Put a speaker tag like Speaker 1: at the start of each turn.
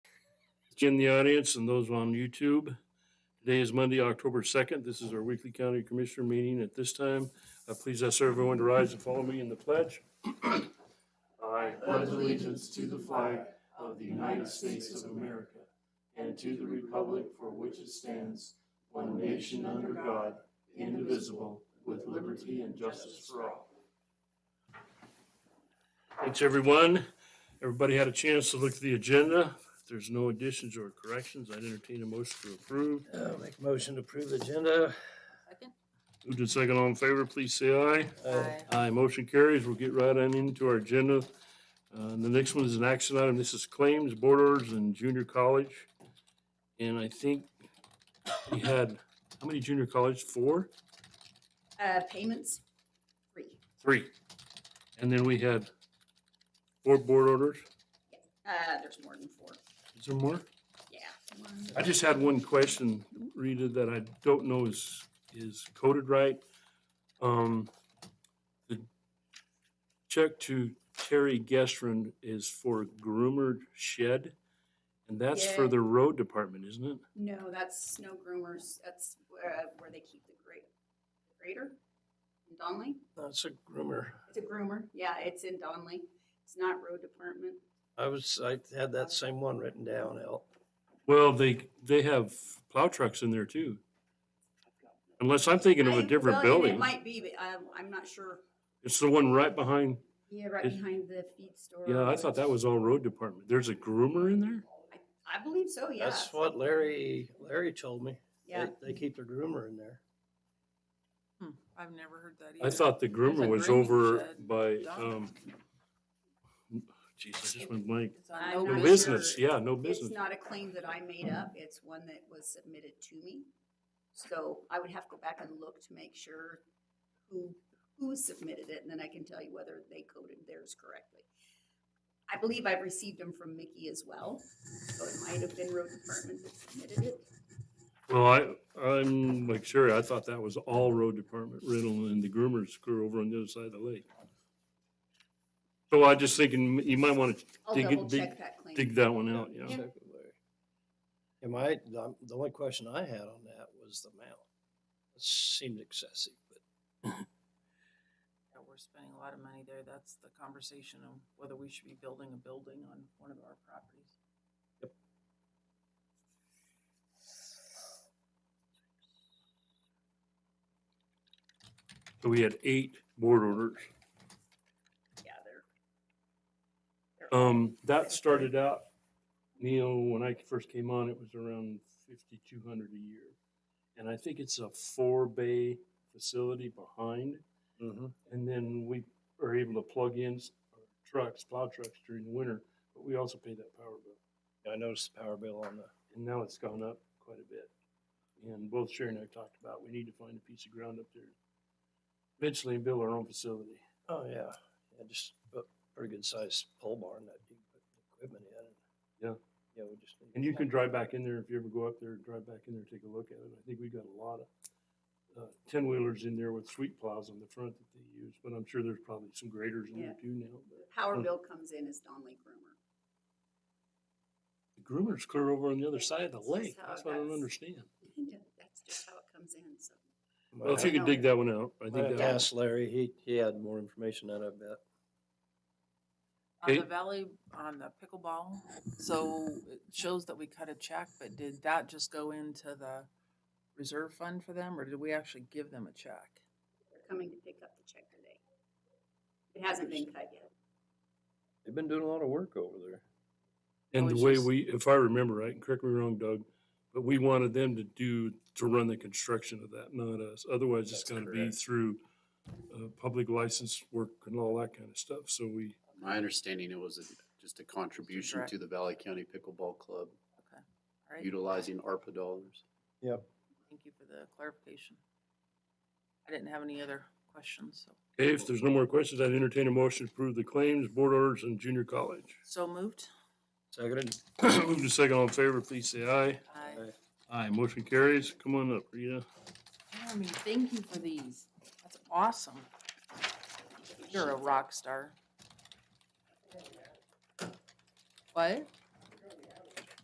Speaker 1: Jim, the audience, and those on YouTube. Today is Monday, October 2nd. This is our weekly county commissioner meeting. At this time, uh, please ask everyone to rise and follow me in the pledge. I pledge allegiance to the flag of the United States of America and to the republic for which it stands, one nation under God, indivisible, with liberty and justice for all. Thanks, everyone. Everybody had a chance to look at the agenda. If there's no additions or corrections, I'd entertain a motion to approve.
Speaker 2: Uh, Make a motion to approve the agenda.
Speaker 3: Second?
Speaker 1: Moved and second all in favor, please say aye.
Speaker 2: Uh,
Speaker 1: Aye, motion carries. We'll get right on into our agenda. Uh, the next one is an action item. This is claims, board orders, and junior college. And I think we had, how many junior college? Four?
Speaker 3: Uh, payments, three.
Speaker 1: Three. And then we had four board orders.
Speaker 3: Uh, there's more than four.
Speaker 1: Is there more?
Speaker 3: Yeah.
Speaker 1: I just had one question, Rita, that I don't know is, is coded right. Um, the check to Terry Gestrin is for groomer shed, and that's for
Speaker 3: Yeah.
Speaker 1: the road department, isn't it?
Speaker 3: No, that's snow groomers. That's where, where they keep the grate, grater in Donley.
Speaker 2: That's a groomer.
Speaker 3: It's a groomer. Yeah, it's in Donley. It's not road department.
Speaker 2: I was, I had that same one written down, Al.
Speaker 1: Well, they, they have plow trucks in there too, unless I'm thinking of
Speaker 3: I-
Speaker 1: a different
Speaker 3: well, It
Speaker 1: building.
Speaker 3: might be, but I'm, I'm not sure.
Speaker 1: It's the one right behind,
Speaker 3: Yeah, right
Speaker 1: Is-
Speaker 3: behind the feed store.
Speaker 1: yeah, I thought that was all road department. There's a groomer in there?
Speaker 3: I, I believe so, yeah.
Speaker 2: That's what Larry, Larry told me. They-
Speaker 3: Yeah.
Speaker 2: They keep their groomer in there.
Speaker 4: Hmm, I've never heard that either.
Speaker 1: I thought the groomer
Speaker 4: a
Speaker 1: was
Speaker 4: grooming
Speaker 1: over
Speaker 4: shed.
Speaker 1: by,
Speaker 4: Dog.
Speaker 1: um, geez, I just went blank.
Speaker 4: It's on
Speaker 3: I'm
Speaker 4: no
Speaker 3: not
Speaker 1: No
Speaker 4: business.
Speaker 1: business,
Speaker 3: sure.
Speaker 1: yeah, no
Speaker 3: It's
Speaker 1: business.
Speaker 3: not a claim that I made up, it's one that was submitted to me. So I would have to go back and look to make sure who, who submitted it, and then I can tell you whether they coded theirs correctly. I believe I've received them from Mickey as well, so it might have been road department that submitted it.
Speaker 1: Well, I, I'm like Sherry, I thought that was all road department rental and the groomers crew over on the other side of the lake. So I just thinking, you might want to
Speaker 3: I'll
Speaker 1: Dig it-
Speaker 3: double
Speaker 1: dig-
Speaker 3: check that claim.
Speaker 1: dig that one out, yeah.
Speaker 2: Check with Larry. Am I, the the only question I had on that was the amount. It seemed excessive, but
Speaker 4: Yeah, We're spending a lot of money there. That's the conversation of whether we should be building a building on one of our properties.
Speaker 1: So we had eight board orders.
Speaker 3: Yeah, they're-
Speaker 1: Um, that started out, Neil, when I first came on, it was around fifty-two hundred a year. And I think it's a four-bay facility behind. And then we are able to plug in s- our trucks, plow trucks during the winter, but we also pay that power bill.
Speaker 2: I noticed the power bill on the,
Speaker 1: And now it's gone up quite a bit. And both Sherry and I talked about, we need to find a piece of ground up there. Eventually and build our own facility.
Speaker 2: oh, yeah. Yeah, just a pretty good sized pole barn that you put equipment in.
Speaker 1: Yeah.
Speaker 2: Yeah, we just. need-
Speaker 1: And you can drive back in there if you ever go up there, drive back in there, take a look at it. I think we got a lot of ten wheelers in there with sweet plows on the front that they use, but I'm sure there's probably some graders in there too now.
Speaker 3: the
Speaker 1: But
Speaker 3: Power
Speaker 1: Mm.
Speaker 3: bill comes in as Donley Groomer.
Speaker 1: The groomer's clear over on the other side of the
Speaker 3: This is
Speaker 1: lake.
Speaker 3: how
Speaker 1: That's
Speaker 3: it
Speaker 1: what I don't
Speaker 3: goes.
Speaker 1: understand.
Speaker 3: uh, That's just how it comes in, so.
Speaker 2: Might
Speaker 1: Well, if you
Speaker 2: have-
Speaker 1: could dig that one out, I
Speaker 2: Might
Speaker 1: think
Speaker 2: have to
Speaker 1: that,
Speaker 2: ask Larry, he, he had more information than I bet.
Speaker 4: On the
Speaker 1: Okay.
Speaker 4: valley, on the pickleball, so it shows that we cut a check, but did that just go into the reserve fund for them, or did we actually give them a check?
Speaker 3: They're coming to pick up the check today. It hasn't been cut yet.
Speaker 2: They've been doing a lot of work over there.
Speaker 1: and
Speaker 4: was
Speaker 1: the way
Speaker 4: just-
Speaker 1: we, if I remember right, and correct me wrong, Doug, but we wanted them to do, to run the construction of that, not us. Otherwise, it's
Speaker 2: That's
Speaker 1: gonna be
Speaker 2: correct.
Speaker 1: through uh, public license work and all that kind of stuff. So we,
Speaker 5: My understanding it was a- just a contribution
Speaker 4: direct-
Speaker 5: to the Valley County Pickleball Club
Speaker 4: All right,
Speaker 5: utilizing ARPA dollars.
Speaker 2: Yep.
Speaker 4: Thank you for the clarification. I didn't have any other questions, so,
Speaker 1: Okay, if there's no more questions, I'd entertain a motion to approve the claims, board orders, and junior college.
Speaker 4: so moved.
Speaker 2: Seconded.
Speaker 1: Move to second all in favor, please say aye.
Speaker 4: I,
Speaker 2: Aye.
Speaker 1: Aye, motion carries. Come on up, Rita.
Speaker 4: I mean, thank you for these. That's awesome. You're a rock star. What?